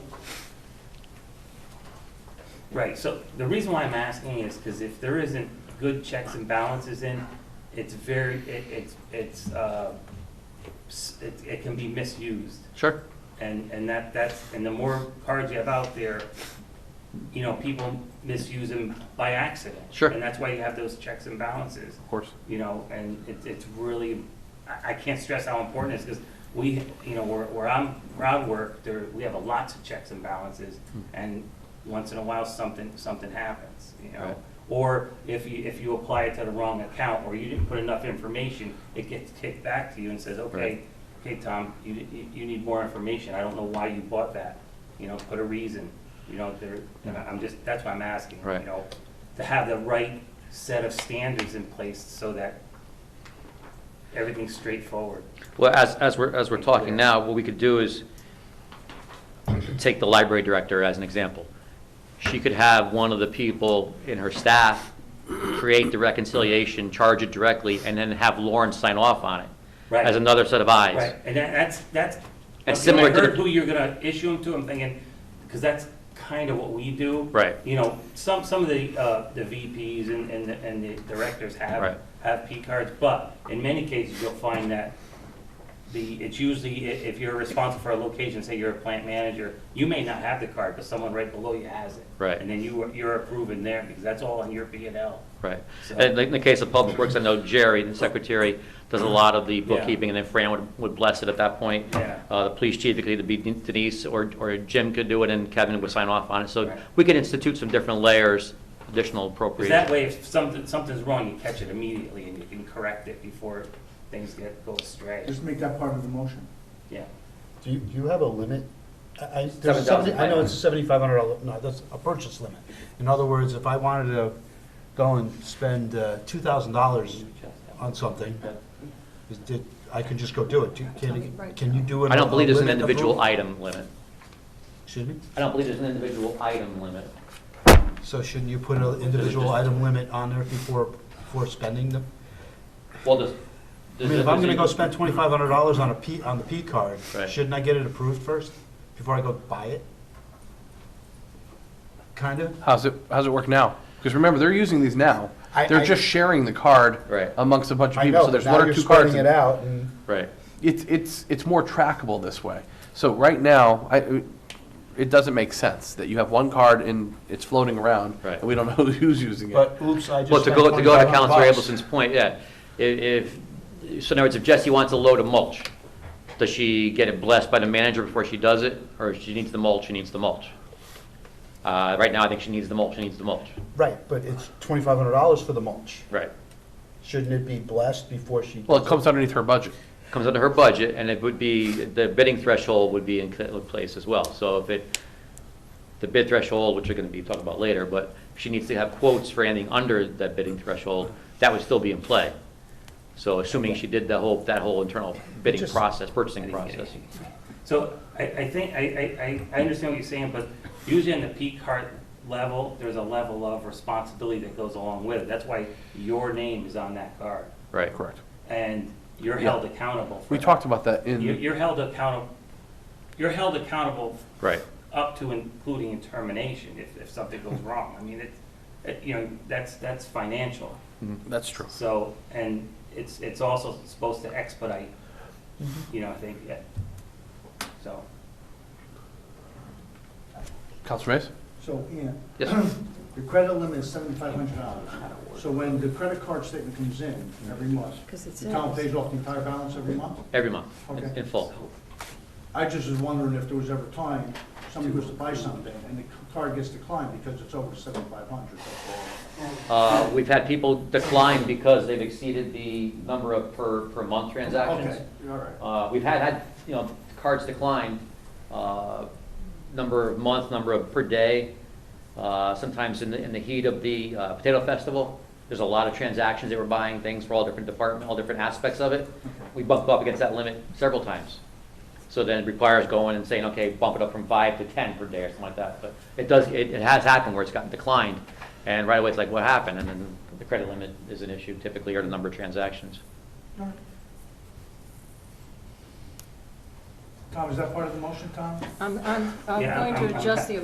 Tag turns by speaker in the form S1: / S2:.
S1: Right, so the reason why I'm asking is because if there isn't good checks and balances in, it's very, it, it's, it's, uh, s- it, it can be misused.
S2: Sure.
S1: And, and that, that's, and the more cards you have out there, you know, people misuse them by accident.
S2: Sure.
S1: And that's why you have those checks and balances,
S2: Of course.
S1: you know, and it's, it's really, I, I can't stress how important it is because we, you know, where, where I'm, where I work, there, we have a lots of checks and balances.
S2: Hmm.
S1: And once in a while, something, something happens, you know?
S2: Right.
S1: Or if you, if you apply it to the wrong account or you didn't put enough information, it gets kicked back to you and says, okay,
S2: Right.
S1: okay, Tom, you, you- you need more information. I don't know why you bought that. You know, put a reason, you know, there, and I- I'm just, that's why I'm asking, you
S2: Right.
S1: know? To have the right set of standards in place so that everything's straightforward.
S2: Well, as, as we're, as we're talking now, what we could do is take the library director as an example. She could have one of the people in her staff create the reconciliation, charge it directly, and then have Lauren sign off on it
S1: Right.
S2: as another set of eyes.
S1: Right, and that, that's, that's.
S2: That's
S1: when
S2: similar to
S1: I
S2: the-
S1: heard who you're gonna issue them to, I'm thinking, because that's kind of what we do.
S2: Right.
S1: You know, some, some of the, uh, the VPs and, and, the- and the directors
S2: Right.
S1: have, have P cards, but in many cases, you'll find that the, it's usually, i- if you're responsible for a location, say you're a plant manager, you may not have the card, but someone right below you has it.
S2: Right.
S1: And then you, you're approving there, because that's all on your P and L.
S2: Right.
S1: So-
S2: And in the case of Public Works, I know Jerry, the secretary, does a lot of the
S1: Yeah.
S2: bookkeeping, and then Fran would, would bless it at that point.
S1: Yeah.
S2: Uh, the police chief, it could either be Denise, or, or Jim could do it, and Kevin would sign off on it. So
S1: Right.
S2: we could institute some different layers, additional
S1: Because that
S2: appropriations.
S1: way, if something, something's wrong, you catch it immediately and you can correct it before things get, go astray.
S3: Just make that part of the motion.
S1: Yeah.
S4: Do you, do you have a limit? I, I, there's
S2: 7,500.
S4: a seventy, I know it's seventy-five hundred, no, that's a purchase limit. In other words, if I wanted to go and spend uh, two thousand dollars on something, is- did- I could just go do it. Do- Can, can you do it?
S2: I
S4: on
S2: don't
S4: a
S2: believe there's an
S4: limit of
S2: individual
S4: who-
S2: item limit.
S4: Excuse me?
S2: I don't believe there's an individual item limit.
S4: So shouldn't you put an individual item limit on there before, before spending them?
S2: Well, does.
S4: I mean, if I'm gonna go spend twenty-five hundred dollars on a P, on the P card,
S2: Right.
S4: shouldn't I get it approved first, before I go buy it? Kinda?
S5: How's it, how's it work now? Because remember, they're using these now.
S4: I-
S5: They're
S4: I-
S5: just sharing the card
S2: Right.
S5: amongst a bunch of
S4: I
S5: people.
S4: know,
S5: So there's
S4: now
S5: one or
S4: you're
S5: two cards.
S4: spreading
S5: in-
S4: it out, and
S2: Right.
S5: It's, it's, it's more trackable this way. So right now, I, it doesn't make sense that you have one card and it's floating around.
S2: Right.
S5: And we don't know who's using it.
S4: But oops, I just.
S2: Well, to
S4: spent
S2: go, to go to
S4: $25
S2: Counselor
S4: bucks.
S2: Abelson's point, yeah, i- if, so in other words, if Jesse wants a load of mulch, does she get it blessed by the manager before she does it, or if she needs the mulch, she needs the mulch? Uh, right now, I think she needs the mulch, she needs the mulch,
S4: Right, but it's twenty-five hundred dollars for the mulch.
S2: right.
S4: Shouldn't it be blessed before she?
S5: Well, it comes underneath her budget.
S2: Comes under her budget, and it would be, the bidding threshold would be in cl- place as well, so if it, the bid threshold, which we're gonna be talking about later, but if she needs to have quotes for anything under that bidding threshold, that would still be in play. So assuming she did the whole, that whole internal bidding
S4: Just-
S2: process, purchasing process.
S1: So I, I think, I, I, I I understand what you're saying, but usually on the P card level, there's a level of responsibility that goes along with it. That's why your name is on that card
S2: Right.
S5: Correct.
S1: and you're held accountable for
S5: We
S1: that.
S5: talked about that in.
S1: You- You're held accountable, you're held accountable
S2: Right.
S1: up to including in termination if, if something goes wrong. I mean, it's, it- you know, that's, that's financial.
S5: Mhm, That's true.
S1: So, and it's, it's also supposed to expedite, you know, I think, yeah. So,
S5: Counselor Reyes?
S3: So, Ian,
S2: Yes,
S3: the credit limit is seventy-five hundred dollars. So when the credit card statement comes in every month,
S6: 'Cause it
S3: the town
S6: says-
S3: pays off the entire balance every month?
S2: every month, in-
S3: Okay.
S2: in full.
S3: I just was wondering if there was ever a time somebody goes to buy something and the card gets declined because it's over seventy-five hundred.
S2: Uh, We've had people decline because they've exceeded the number of per, per month transactions.
S3: Okay, all right.
S2: Uh, We've had, had, you know, cards decline, uh, number of month, number of per day. Uh, Sometimes in the, in the heat of the uh, Potato Festival, there's a lot of transactions, they were buying things for all different department, all different aspects of it. We bumped up against that limit several times. So then it requires going and saying, okay, bump it up from five to 10 per day or something like that. But it does, it, it has happened where it's gotten declined, and right away it's like, what happened? And then the credit limit is an issue typically, or the number of transactions.
S3: Tom, is that part of the motion, Tom?
S6: I'm, I'm, I'm
S1: Yeah,
S6: going
S1: I'm-
S6: to
S1: I'm-
S6: adjust the